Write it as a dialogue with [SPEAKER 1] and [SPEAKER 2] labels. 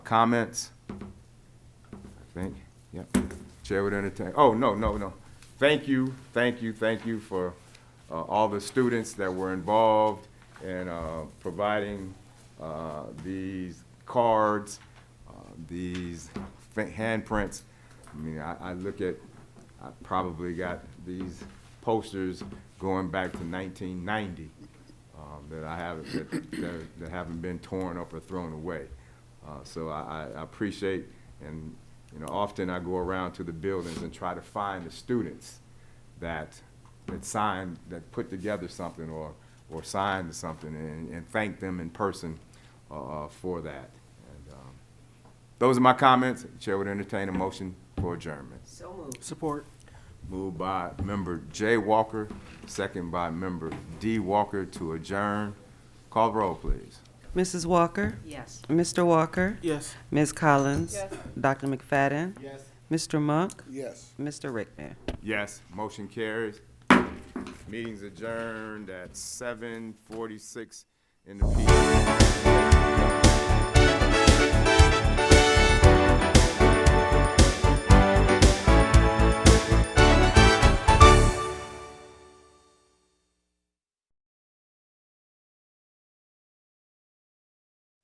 [SPEAKER 1] Comments? I think, yep. Chair would entertain, oh, no, no, no. Thank you, thank you, thank you for uh, all the students that were involved in uh, providing uh, these cards, uh, these fa- handprints. I mean, I, I look at, I probably got these posters going back to nineteen ninety um, that I haven't, that- that, that haven't been torn up or thrown away. Uh, so I, I- I appreciate, and, you know, often I go around to the buildings and try to find the students that, that signed, that put together something or, or signed something and, and thank them in person, uh, uh, for that. And, um, Those are my comments. Chair would entertain a motion for adjournment.
[SPEAKER 2] So moved.
[SPEAKER 3] Support.
[SPEAKER 1] Moved by member Jay Walker, second by member D Walker to adjourn. Call the roll, please.
[SPEAKER 4] Mrs. Walker?
[SPEAKER 2] Yes.
[SPEAKER 4] Mr. Walker?
[SPEAKER 3] Yes.
[SPEAKER 4] Ms. Collins? Dr. McFadden?
[SPEAKER 3] Yes.
[SPEAKER 4] Mr. Monk?
[SPEAKER 3] Yes.
[SPEAKER 4] Mr. Rickman?
[SPEAKER 1] Yes, motion carries. Meeting's adjourned at seven forty-six in the PM.